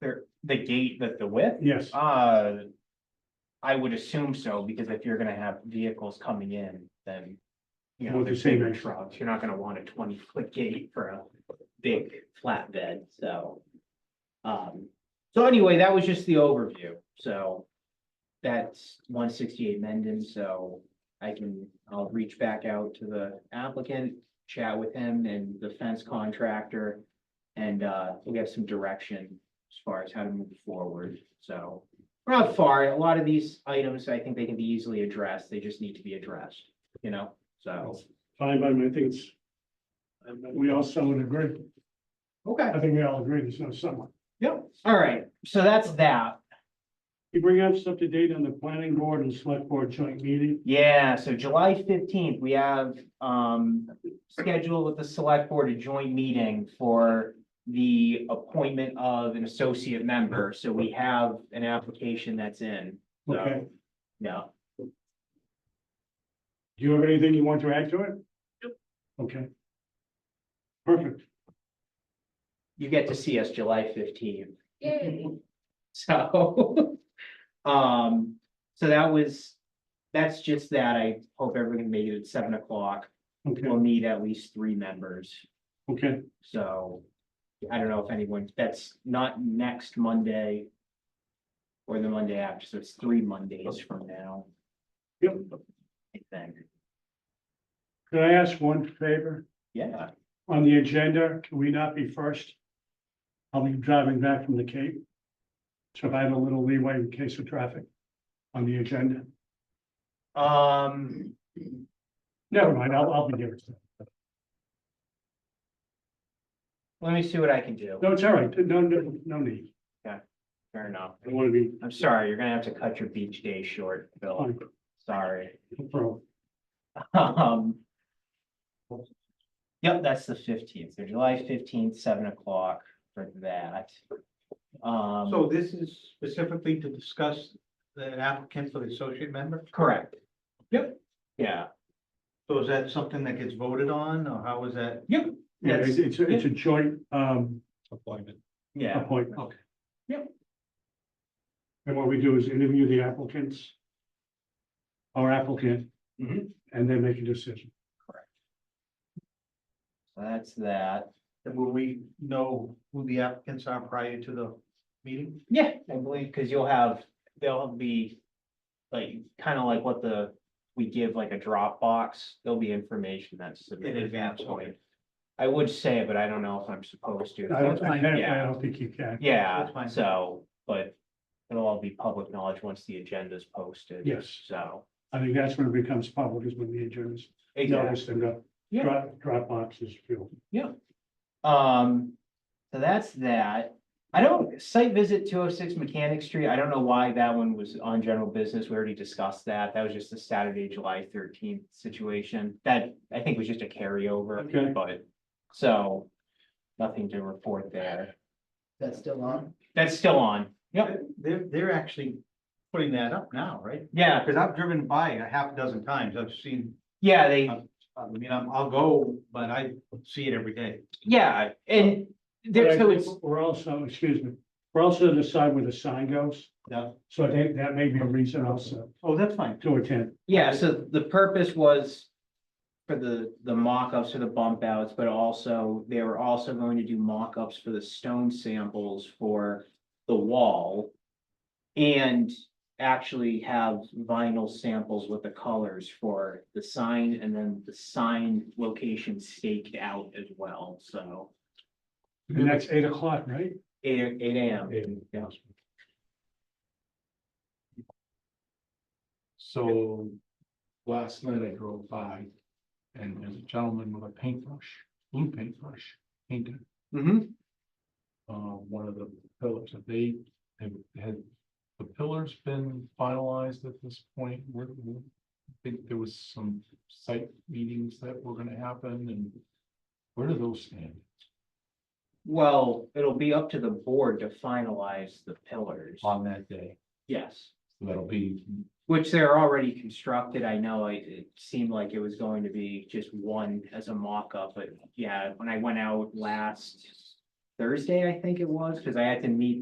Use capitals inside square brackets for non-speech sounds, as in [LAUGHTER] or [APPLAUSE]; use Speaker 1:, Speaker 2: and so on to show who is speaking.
Speaker 1: there, the gate that the width,
Speaker 2: Yes,
Speaker 1: uh. I would assume so, because if you're gonna have vehicles coming in, then. You know,
Speaker 2: Well, the
Speaker 1: there's
Speaker 2: same
Speaker 1: bigger
Speaker 2: as-
Speaker 1: trucks, you're not gonna want a twenty foot gate for a big flatbed, so. Um, so anyway, that was just the overview, so. That's one sixty-eight Mendon, so I can, I'll reach back out to the applicant, chat with him and the fence contractor. And uh, we'll get some direction as far as how to move forward, so. We're not far, a lot of these items, I think they can be easily addressed, they just need to be addressed, you know, so,
Speaker 2: fine, but I mean, I think it's. We all somewhat agree.
Speaker 1: okay,
Speaker 2: I think we all agree there's no someone.
Speaker 1: yep, all right, so that's that.
Speaker 2: You bring us up to date on the planning board and select board joint meeting.
Speaker 1: Yeah, so July fifteenth, we have um scheduled with the select board a joint meeting for the appointment of an associate member, so we have an application that's in,
Speaker 2: Okay.
Speaker 1: so, yeah.
Speaker 2: Do you have anything you want to add to it? Okay. Perfect.
Speaker 1: You get to see us July fifteenth.
Speaker 3: Yay.
Speaker 1: [LAUGHS] So, [LAUGHS] um, so that was, that's just that. I hope everyone made it at seven o'clock.
Speaker 2: Okay,
Speaker 1: We'll need at least three members,
Speaker 2: okay.
Speaker 1: so I don't know if anyone, that's not next Monday or the Monday after, so it's three Mondays from now,
Speaker 2: Yep.
Speaker 1: I think.
Speaker 2: Could I ask one favor?
Speaker 1: Yeah,
Speaker 2: On the agenda, can we not be first? I'll be driving back from the Cape. So if I have a little leeway in case of traffic on the agenda.
Speaker 1: um,
Speaker 2: Never mind, I'll, I'll be there.
Speaker 1: let me see what I can do.
Speaker 2: No, it's all right. No, no, no need.
Speaker 1: Fair enough.
Speaker 2: I want to be
Speaker 1: I'm sorry, you're gonna have to cut your beach day short, Bill.
Speaker 2: on
Speaker 1: Sorry. [LAUGHS]
Speaker 2: pro.
Speaker 1: Um. Yep, that's the fifteenth, so July fifteenth, seven o'clock for that. Um,
Speaker 4: So this is specifically to discuss the applicant for the associate member?
Speaker 1: correct. Yep. Yeah,
Speaker 4: So is that something that gets voted on or how is that?
Speaker 1: yep,
Speaker 2: Yeah,
Speaker 1: That's-
Speaker 2: it's, it's, a- it's a joint, um,
Speaker 4: Appointment.
Speaker 1: yeah,
Speaker 2: appointment.
Speaker 4: Okay.
Speaker 1: Yep.
Speaker 2: And what we do is interview the applicants. Our applicant.
Speaker 1: Mhm.
Speaker 2: And then make a decision.
Speaker 1: so that's that.
Speaker 4: And will we know who the applicants are prior to the meeting?
Speaker 1: Yeah, I believe, because you'll have, they'll be like, kind of like what the, we give like a Dropbox, there'll be information that's submitted. at that
Speaker 4: advance, okay.
Speaker 1: point. I would say, but I don't know if I'm supposed to.
Speaker 2: I don't, I don't- I
Speaker 1: Yeah.
Speaker 2: don't think you can.
Speaker 1: Yeah,
Speaker 4: That's fine.
Speaker 1: so, but it'll all be public knowledge once the agenda's posted.
Speaker 2: Yes.
Speaker 1: So.
Speaker 2: I think that's when it becomes public is when the agendas
Speaker 1: Exactly.
Speaker 2: notice and the
Speaker 1: Yeah.
Speaker 2: drop, drop boxes filled.
Speaker 1: Um, so that's that. I don't, site visit two oh six Mechanic Street, I don't know why that one was on general business. We already discussed that. That was just a Saturday, July thirteenth situation. That, I think was just a
Speaker 2: Okay.
Speaker 1: carryover, but, so, nothing to report there.
Speaker 4: That's still on.
Speaker 1: That's still on. Yep,
Speaker 4: They're, they're actually putting that up now, right?
Speaker 1: yeah,
Speaker 4: Because I've driven by it a half dozen times. I've seen,
Speaker 1: yeah, they.
Speaker 2: Um,
Speaker 4: I mean, I'm- I'll go, but I see it every day.
Speaker 1: Yeah, and there,
Speaker 2: But I
Speaker 1: so
Speaker 2: think
Speaker 1: it's,
Speaker 2: We're also, excuse me, we're also to decide where the sign goes.
Speaker 4: Yeah.
Speaker 2: So I think that may be a reason also
Speaker 4: Oh, that's fine.
Speaker 2: to attend.
Speaker 1: yeah, so the purpose was. For the, the mock-ups or the bump outs, but also, they were also going to do mock-ups for the stone samples for the wall. And actually have vinyl samples with the colors for the sign and then the sign location staked out as well, so.
Speaker 2: And that's eight o'clock, right?
Speaker 1: Eight, eight AM, yeah.
Speaker 5: So last night I drove by and there's a gentleman with a paintbrush, blue paintbrush, painted
Speaker 1: Mm-hmm,
Speaker 5: uh one of the pillars that they have had. The pillars been finalized at this point, we I think there was some site meetings that were gonna happen and. Where do those stand?
Speaker 1: well, it'll be up to the board to finalize the pillars,
Speaker 5: On that day,
Speaker 1: yes.
Speaker 5: that'll be,
Speaker 1: Which they're already constructed, I know, it, it seemed like it was going to be just one as a mock-up, but yeah, when I went out last Thursday, I think it was, because I had to meet